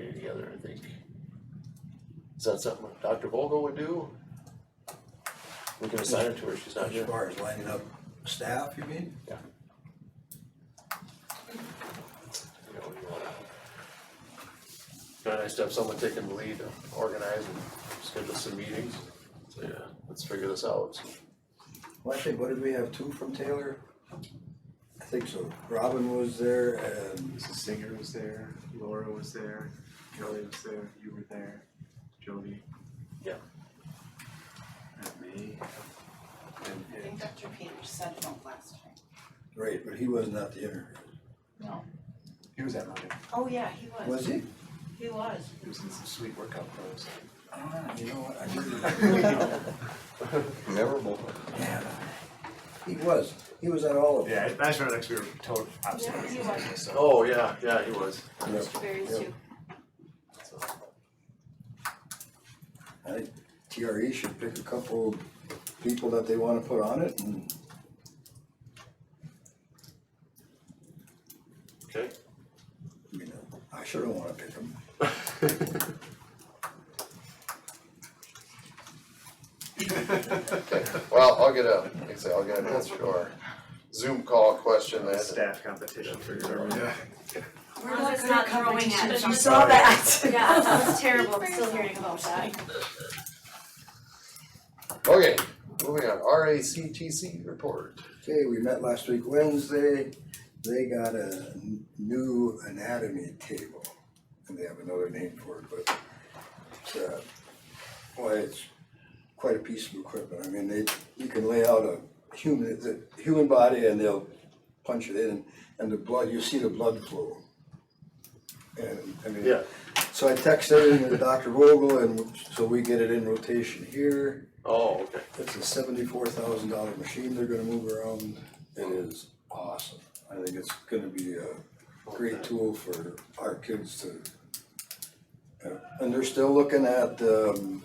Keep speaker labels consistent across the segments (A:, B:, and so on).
A: together, I think. Is that something Dr. Vogel would do? We can assign it to her, she's not
B: As
A: here.
B: far as lining up staff, you mean?
A: You know, you wanna- Kinda nice to have someone taking the lead, to organize and schedule some meetings, so yeah, let's figure this out.
B: Well, I think, what did we have, two from Taylor? I think so, Robin was there and
C: Mrs. Singer was there, Laura was there, Kelly was there, you were there, Jody.
A: Yeah.
C: And me. And,
D: I
C: and
D: think Dr. Peters said no last time.
B: Great, but he was not the interviewer,
D: No.
C: he was at mine,
D: Oh, yeah, he was.
B: was he?
D: He was.
C: he was in some sweet workout clothes.
B: Ah, you know what, I didn't.
E: memorable.
B: Yeah. He was, he was at all of them.
C: Yeah, I just remember, like, we were total
D: Yeah, he was.
C: absolutely.
A: Oh, yeah, yeah, he was.
B: Yep.
D: Mr. Berry's
B: Yep.
D: too.
B: I think TRE should pick a couple people that they wanna put on it and
A: Okay.
B: I mean, I sure don't wanna pick them.
F: Okay, well, I'll get a, like I say, I'll get an answer to our Zoom call question then.
C: Staff competition for your.
G: We're not good at throwing at
H: You
G: each
H: saw that.
G: Yeah, that was terrible, I'm still hearing about that.
F: Okay, moving on, RACTC report.
B: Okay, we met last week Wednesday, they got a n- new anatomy table, and they have another name for it, but it's, uh, well, it's quite a piece of equipment, I mean, they, you can lay out a human, the human body and they'll punch it in, and the blood, you see the blood flow. And, I mean,
A: Yeah.
B: so I texted everything to Dr. Vogel, and so we get it in rotation here.
A: Oh, okay.
B: It's a seventy-four thousand dollar machine they're gonna move around. It is awesome. I think it's gonna be a great tool for our kids to. uh, And they're still looking at, um,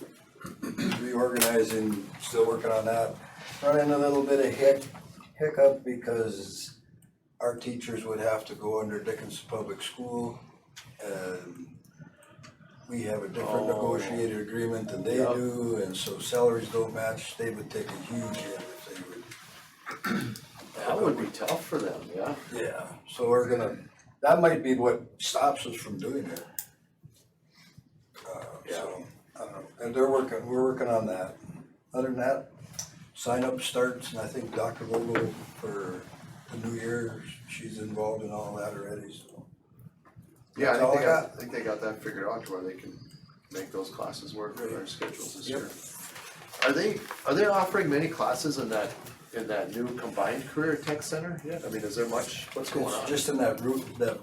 B: reorganizing, still working on that. Running a little bit of hic, hiccup because our teachers would have to go under Dickinson Public School. And we have a different
A: Oh.
B: negotiated agreement than they
A: Yep.
B: do, and so salaries don't match, they would take a huge hit if they would.
A: That would be tough for them, yeah.
B: Yeah, so we're gonna, that might be what stops us from doing it. Uh, so, I don't know, and they're working, we're working on that. Other than that, sign up starts, and I think Dr. Vogel for the new year, she's involved in all that already, so.
F: Yeah, I
B: That's all
F: think
B: I
F: they got,
B: got.
F: I think they got that figured out to where they can make those classes work with our schedules this
B: Yep.
F: year.
A: Are they, are they offering many classes in that, in that new combined career tech center? Yeah. I mean, is there much, what's going
B: It's
A: on?
B: just in that route, that,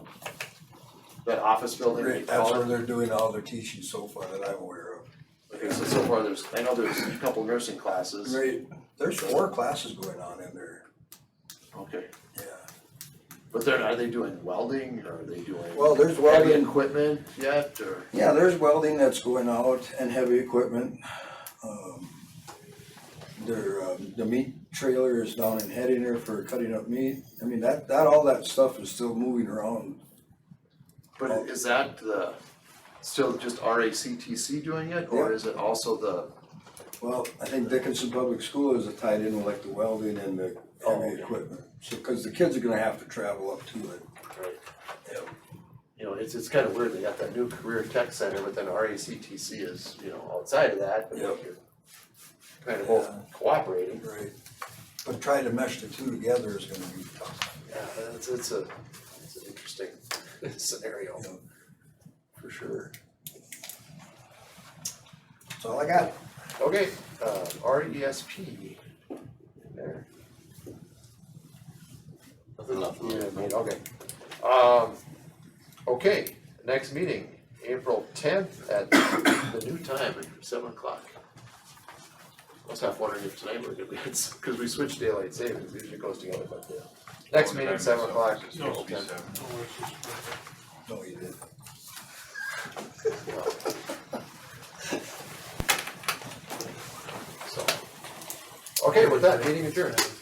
A: That office building, they
B: that's
A: call it?
B: where they're doing all their teaching so far that I'm aware of.
A: Okay, so so far there's, I know there's a couple nursing classes.
B: Right, there's four classes going on in there,
A: Okay,
B: yeah.
A: but they're, are they doing welding or are they doing?
B: Well, there's
A: Heavy
B: welding.
A: equipment yet or?
B: Yeah, there's welding that's going out and heavy equipment. Um, There, um, the meat trailer is down in Headinger for cutting up meat. I mean, that, that, all that stuff is still moving around.
A: But is that the, still just RACTC doing it or
B: Yeah.
A: is it also the?
B: Well, I think Dickinson Public School is tied in with like the welding and the heavy
A: Oh.
B: equipment. So, cause the kids are gonna have to travel up to it. Yep.
A: You know, it's, it's kind of weird, they got that new career tech center, but then RACTC is, you know, outside of that, but
B: Yep.
A: you're kind of both cooperating.
B: Right. But trying to mesh the two together is gonna be tough.
A: Yeah, it's, it's a, it's an interesting scenario, for sure.
B: That's all I got.
A: Okay, uh, RESP. There. Nothing left. Yeah, made, okay.
F: Um, okay, next meeting, April tenth at
A: The new time at seven o'clock. I was half wondering if tonight we're gonna be, it's, cause we switched daylight savings, usually goes together, but yeah.
F: Next meeting, seven o'clock.
A: No, it's just-
B: No, you didn't.
F: Okay, with that, meeting adjourned.